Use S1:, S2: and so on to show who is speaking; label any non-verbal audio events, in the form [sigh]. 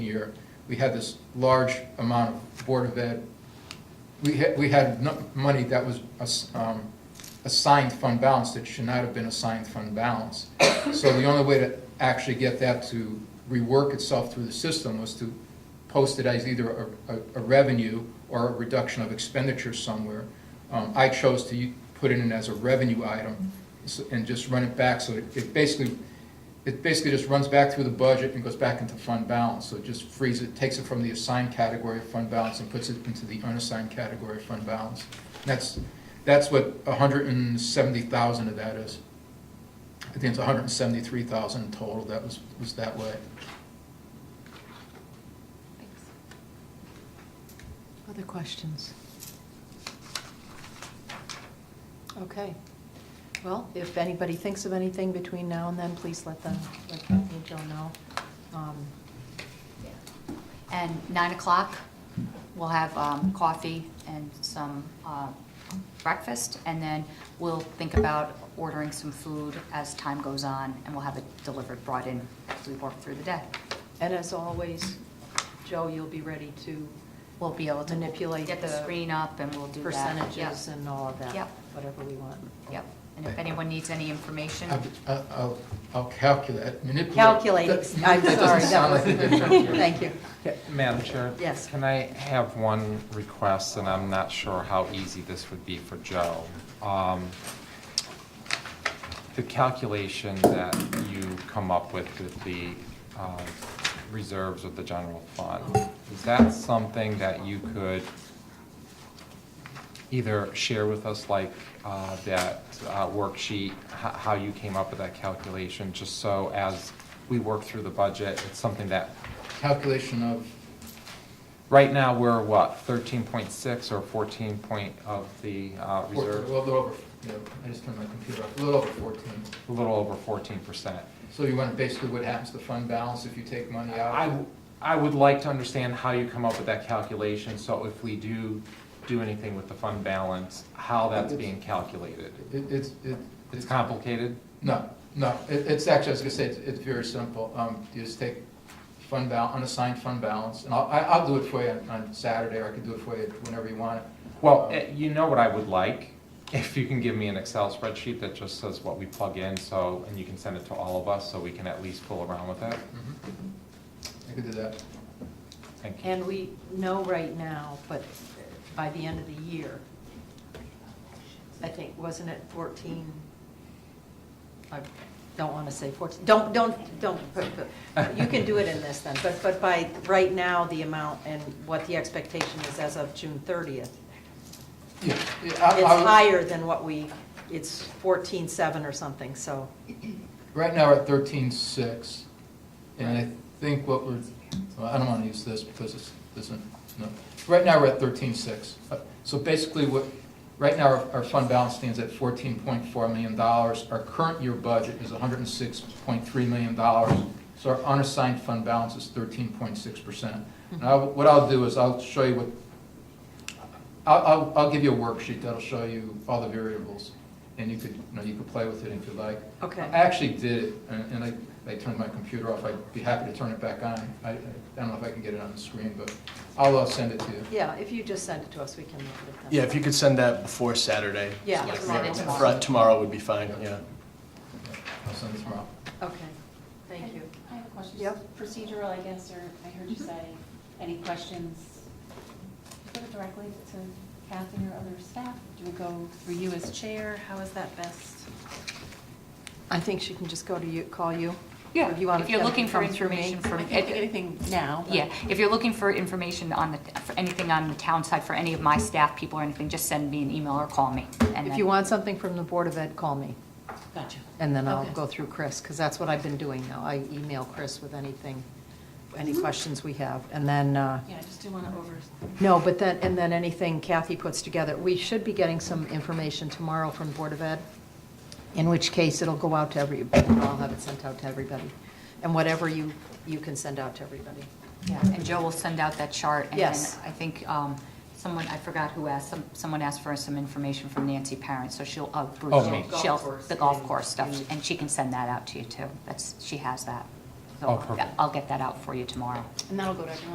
S1: year, we had this large amount of Board of Ed, we had, we had no- money that was ass- um, assigned fund balance that should not have been assigned fund balance. So the only way to actually get that to rework itself through the system was to post it as either a- a a revenue or a reduction of expenditure somewhere. Um, I chose to u- put it in as a revenue item s- and just run it back, so it- it basically, it basically just runs back through the budget and goes back into fund balance. So it just frees it, takes it from the assigned category of fund balance and puts it into the unassigned category of fund balance. And That's, that's what hundred and seventy thousand of that is. I think it's hundred and seventy-three thousand total that was, was that way.
S2: Other questions? Okay. Well, if anybody thinks of anything between now and then, please let them, let Bethany and Joe know. Um,
S3: And nine o'clock, we'll have um, coffee and some uh, breakfast, and then we'll think about ordering some food as time goes on, and we'll have it delivered, brought in as we work through the day.
S2: And as always, Joe, you'll be ready to
S3: We'll be able to
S2: Manipulate
S3: Get the
S2: the
S3: screen up, and we'll do that.
S2: percentages
S3: Yep,
S2: and all of that,
S3: Yep.
S2: whatever we want.
S3: Yep, and if anyone needs any information,
S1: I'll- I'll, I'll calculate, manipulate. [laughs]
S2: Calculating,
S1: That-
S2: I'm
S1: that doesn't
S2: sorry, that
S1: sound
S2: was,
S1: like a good
S2: [laughs]
S1: term.
S2: thank you.
S4: Yeah, Madam Chair?
S2: Yes.
S4: Can I have one request, and I'm not sure how easy this would be for Joe? Um, The calculation that you come up with with the um, reserves of the general fund, is that something that you could either share with us, like uh, that uh, worksheet, h- how you came up with that calculation, just so as we work through the budget, it's something that
S1: Calculation of,
S4: Right now, we're what, thirteen point six or fourteen point of the uh,
S1: four- a
S4: reserve?
S1: little over, no, I just turned my computer off, a little over fourteen.
S4: A little over fourteen percent.
S1: So you want basically what happens to fund balance if you take money out?
S4: I, I would like to understand how you come up with that calculation, so if we do do anything with the fund balance, how that's being calculated.
S1: It, it's, it.
S4: It's complicated?
S1: No, no, it, it's actually, I was gonna say, it's, it's very simple, um, you just take fund bal, unassigned fund balance, and I'll, I- I'll do it for you on- on Saturday, or I could do it for you whenever you want it.
S4: Well, eh, you know what I would like? If you can give me an Excel spreadsheet that just says what we plug in, so, and you can send it to all of us, so we can at least fool around with it.
S1: I could do that,
S4: Thank you.
S2: And we know right now, but by the end of the year, I think, wasn't it 14? I don't want to say 14, don't, don't, don't, put- put- you can do it in this then, but, but by, right now, the amount and what the expectation is as of June 30th,
S1: yeah. yeah, I-
S2: it's
S1: I would-
S2: higher than what we, it's 14.7 or something, so,
S1: Right now, we're at thirteen-six, and I think what we're, well, I don't wanna use this because it's, this isn't, no. Right now, we're at thirteen-six. So basically, what, right now, our, our fund balance stands at fourteen point four million dollars. Our current year budget is hundred and six point three million dollars, so our unassigned fund balance is thirteen point six percent. And I, what I'll do is I'll show you what, I'll, I'll, I'll give you a worksheet that'll show you all the variables, and you could, you know, you could play with it if you like.
S2: okay.
S1: I actually did it, and and I, I turned my computer off, I'd be happy to turn it back on. I, I don't know if I can get it on the screen, but I'll uh, send it to you.
S2: Yeah, if you just send it to us, we can look at it then.
S5: Yeah, if you could send that before Saturday.
S2: Yeah,
S3: Yeah,
S2: tomorrow.
S3: tomorrow.
S5: Fri- Tomorrow would be fine, yeah.
S1: I'll send it tomorrow.
S2: Okay, thank
S6: I-
S2: you.
S6: I have a question.
S2: Yep.
S6: Procedural, I guess, or I heard you say, any questions? Put it directly to Kathy or other staff? Do we go through you as chair? How is that best?
S2: I think she can just go to you, call you.
S3: Yeah,
S2: Or do you want
S3: if
S2: it
S3: you're
S2: to
S3: looking for
S2: come through me?
S3: information from-
S6: I can't think of anything now. but-
S3: yeah, if you're looking for information on the, for anything on the town side, for any of my staff people or anything, just send me an email or call me. and
S2: If
S3: then-
S2: you want something from the Board of Ed, call me,
S6: Gotcha.
S2: and then I'll
S6: Okay.
S2: go through Chris, because that's what I've been doing now. I email Chris with anything, any
S3: Mm-hmm.
S2: questions we have, and then, uh,
S6: Yeah, I just do want to over,
S2: no, but then, and then anything Kathy puts together. We should be getting some information tomorrow from Board of Ed, in which case it'll go out to everybody, I'll have it sent out to everybody, and whatever you, you can send out to everybody.
S3: Yeah, and Joe will send out that chart. and then
S2: Yes.
S3: I think um, someone, I forgot who asked, some- someone asked for some information from Nancy Parent, so she'll, uh, Bruce,
S4: Oh, me.
S3: she'll- she'll, the golf course stuff, and she can send that out to you too. That's, she has that.
S7: so
S8: Oh,
S7: on.
S8: perfect.
S4: I'll get that out for you tomorrow.
S3: And that'll go to everyone